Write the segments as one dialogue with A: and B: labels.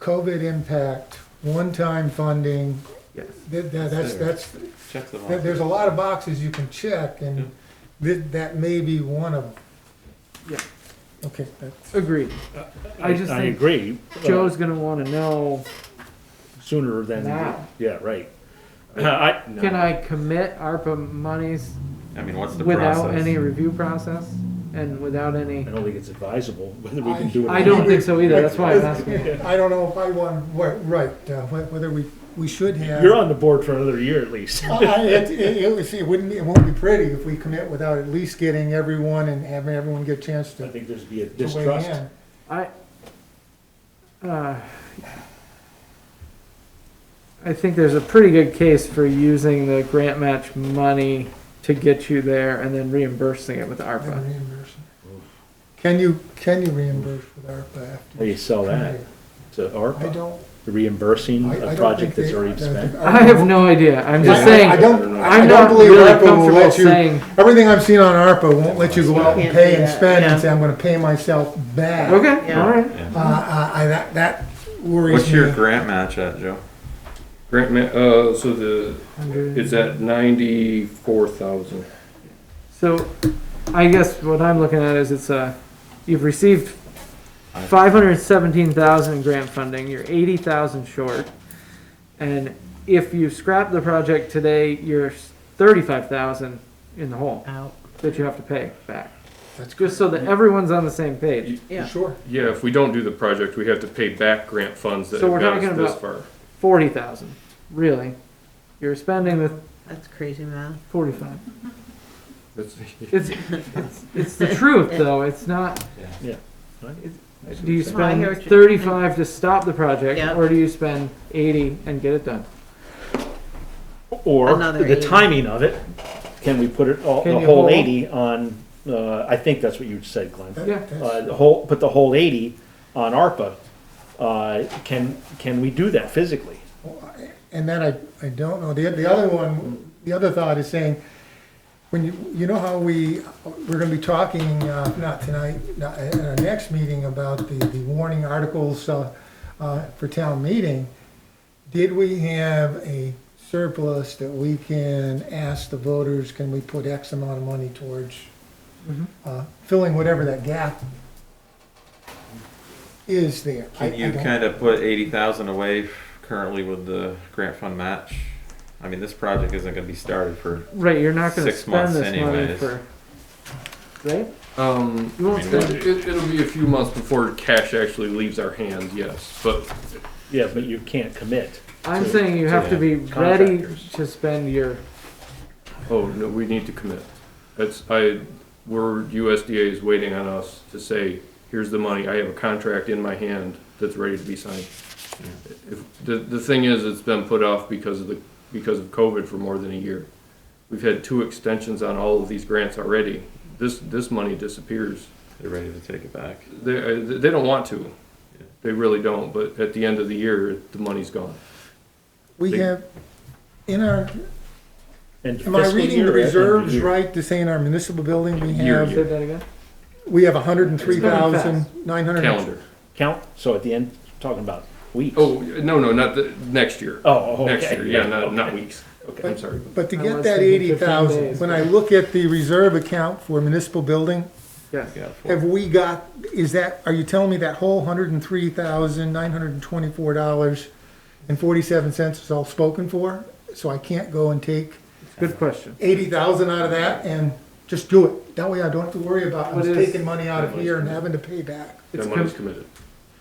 A: COVID impact, one-time funding,
B: Yes,
A: that, that- that's, that's,
C: Check them
A: that-
C: off.
A: there's a lot of boxes you can check and that, that may be one of them.
B: Yeah.
A: Okay, that's,
B: agreed. I just
D: I
B: think
D: agree. uh,
B: Joe's gonna wanna know,
D: Sooner than.
B: Now.
D: Yeah, right. I,
B: can I commit ARPA monies
C: I mean, what's the
B: without
C: process?
B: any review process? And without
D: I
B: any,
D: don't think it's advisable whether we can do it. or
B: I
D: not.
B: don't think so either, that's why I'm asking.
A: I don't know if I want, right, right, uh, wh- whether we, we should have.
D: You're on the board for another year at least.
A: I- I- It, it, it would- see, it wouldn't, be- it won't be pretty if we commit without at least getting everyone and having everyone get a chance
D: I
A: to
D: think there's be a
A: to weigh
D: distrust.
A: in.
B: I, uh, I think there's a pretty good case for using the grant match money to get you there and then reimbursing it with
A: And
B: ARPA.
A: reimburse. Can you, can you reimburse with ARPA
D: How
A: after?
D: do you sell that? To
A: I
D: ARPA,
A: don't,
D: The reimbursing
A: I, I
D: a
A: don't
D: project
A: think they-
D: that's already
A: that-
D: spent?
B: I have no idea, I'm just saying,
A: I I don't, I don't
B: I'm not
A: believe
B: really
A: ARPA will
B: comfortable
A: let you,
B: saying,
A: everything I've seen on ARPA won't let you go out and
E: Can't
A: pay
E: do
A: and
E: that.
A: spend and
B: Yeah.
A: say, I'm gonna pay myself back.
B: okay,
E: Yeah.
B: alright.
C: Yeah.
A: Uh, Uh, I, that, that worries me.
C: What's your grant match at, Joe?
F: Grant ma- uh, so the, it's at ninety-four thousand.
B: So, I guess what I'm looking at is it's a, you've received five hundred seventeen thousand in grant funding, you're eighty thousand short. And if you scrap the project today, you're thirty-five thousand in the hole
E: Out.
B: that you have to pay back.
A: That's good,
B: Just so that everyone's on the same page.
E: Yeah.
A: sure.
F: Yeah, if we don't do the project, we have to pay back grant funds that
B: So we're
F: have got us
B: talking
F: this
B: about-
F: far.
B: Forty thousand, really. You're spending the
E: That's crazy math.
B: forty-five.
F: That's-
B: It's, it's, it's the truth though, it's not, do you
E: No, I hear what
B: spend
E: you're-
B: thirty-five to stop the project?
E: Yeah.
B: Or do you spend eighty and get it done?
D: Or
E: Another
D: the
E: 80.
D: timing of it, can we put it all,
B: Can
D: the
B: you
D: whole
B: hold?
D: eighty on, uh, I think that's what you said, Glenn.
A: That-
B: Yeah.
A: that's-
D: Uh, the whole, put the whole eighty on ARPA. Uh, can, can we do that physically?
A: And that I, I don't know. The, the other one, the other thought is saying, when you, you know how we, we're gonna be talking, uh, not tonight, not, at our next meeting about the, the warning articles, uh, uh, for town meeting. Did we have a surplus that we can ask the voters, can we put X amount of money towards,
B: Mhm.
A: uh, filling whatever that gap is there? I-
C: Can
A: I
C: you
A: don't-
C: kind of put eighty thousand away f- currently with the grant fund match? I mean, this project isn't gonna be started for,
B: Right, you're not gonna
C: Six
B: spend
C: months
B: this money
C: anyways.
B: for, right?
F: Um,
B: You won't
C: I mean,
B: spend,
F: it, it'll be a few months before cash actually leaves our hands, yes, but
D: Yeah, but you can't commit.
B: I'm
D: to-
B: saying you
D: to
B: have to be ready
D: contractors.
B: to spend your,
F: Oh, no, we need to commit. That's, I, we're, USDA is waiting on us to say, here's the money, I have a contract in my hand that's ready to be signed. If, the, the thing is, it's been put off because of the, because of COVID for more than a year. We've had two extensions on all of these grants already. This, this money disappears.
C: they're ready to take it back.
F: They, uh, they don't want to. They really don't, but at the end of the year, the money's gone.
A: We have, in our,
D: And
A: Am I
D: fiscal
A: reading the
D: year, I think,
A: reserves
D: you-
A: right to say in our municipal building, we
F: Year,
A: have,
F: year.
B: say that again?
A: we have hundred and three thousand,
B: It's
A: nine hundred?
F: Calendar.
D: Count, so at the end, talking about weeks.
F: Oh, no, no, not the, next year.
D: Oh, okay.
F: Next year, yeah, not, not
D: Okay.
F: weeks.
D: Okay.
F: I'm sorry.
A: But to get
B: Unless
A: that
B: they do
A: eighty thousand,
B: 15
A: when I look at the reserve account for municipal building,
B: Yes.
C: You got four.
A: have we got, is that, are you telling me that whole hundred and three thousand, nine hundred and twenty-four dollars and forty-seven cents is all spoken for? So I can't go and take
B: Good question.
A: eighty thousand out of that and just do it? That way I don't have to worry about, I'm
B: What is-
A: taking money out of here and having to pay back.
B: It's
F: That
B: com-
F: money's committed.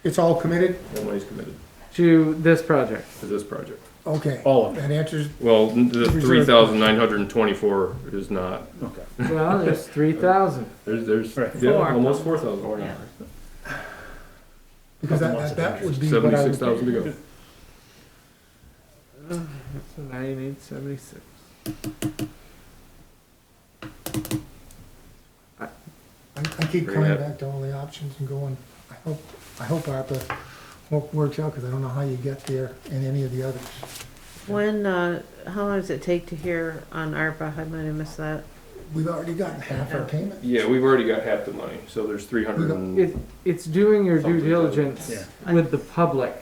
A: It's all committed?
F: That money's committed
B: to this project.
F: to this project.
A: Okay.
D: All of it.
A: That answers,
F: Well, n- the
A: Reserve.
F: three thousand nine hundred and twenty-four is not,
D: Okay.
B: Well, there's three thousand.
F: there's, there's,
D: Right.
F: yeah,
E: Four.
F: almost four thousand.
E: Yeah.
A: Because that,
D: Lots
A: that,
D: of
A: that would be what I
F: Seventy-six
A: would,
F: thousand to go.
B: So now you need seventy-six.
A: I I keep
C: Bring
A: coming
C: it.
A: back to all the options and going, I hope, I hope ARPA wo- works out, because I don't know how you get there in any of the others.
E: When, uh, how long does it take to hear on ARPA? I might have missed that.
A: We've already gotten half our payment.
F: Yeah, we've already got half the money, so there's three hundred and.
B: It, it's doing your due
F: Something.
B: diligence
D: Yeah.
B: with the public.